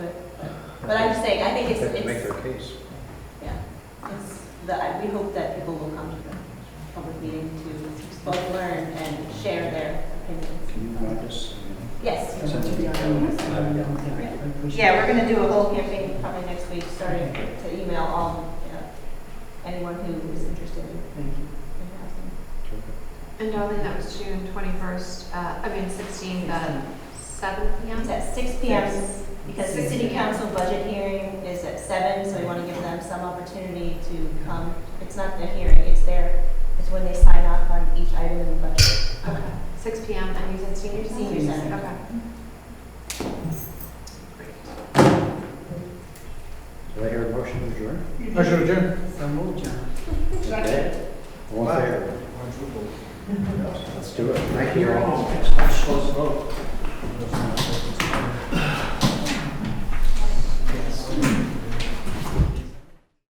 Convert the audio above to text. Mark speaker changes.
Speaker 1: But I'm just saying, I think it's,
Speaker 2: They have to make
Speaker 1: it's,
Speaker 2: their case.
Speaker 1: yeah, it's, the, I- we hope that people will come to the public meeting to both learn and share their opinions.
Speaker 2: Can you write this?
Speaker 1: Yes. Yeah,
Speaker 3: Yeah,
Speaker 1: we're gonna do a whole campaign probably next week, starting to email all, you know, anyone who is interested in
Speaker 3: Thank you.
Speaker 1: in housing.
Speaker 4: And Darlene, that was June twenty-first, uh, I mean sixteenth at seven P
Speaker 1: It's
Speaker 4: M.
Speaker 1: at six P M, because the city council budget hearing is at seven, so we wanna give them some opportunity to come. It's not their hearing, it's their, it's when they sign off on each item in the budget.
Speaker 4: Okay, six P M, and you said senior center?
Speaker 1: Senior center.
Speaker 4: Okay.
Speaker 2: Do I hear a motion to adjourn?
Speaker 5: Motion adjourned.
Speaker 3: So moved, John.
Speaker 2: Okay. All in favor? Let's do it. Thank you all.
Speaker 5: Close vote.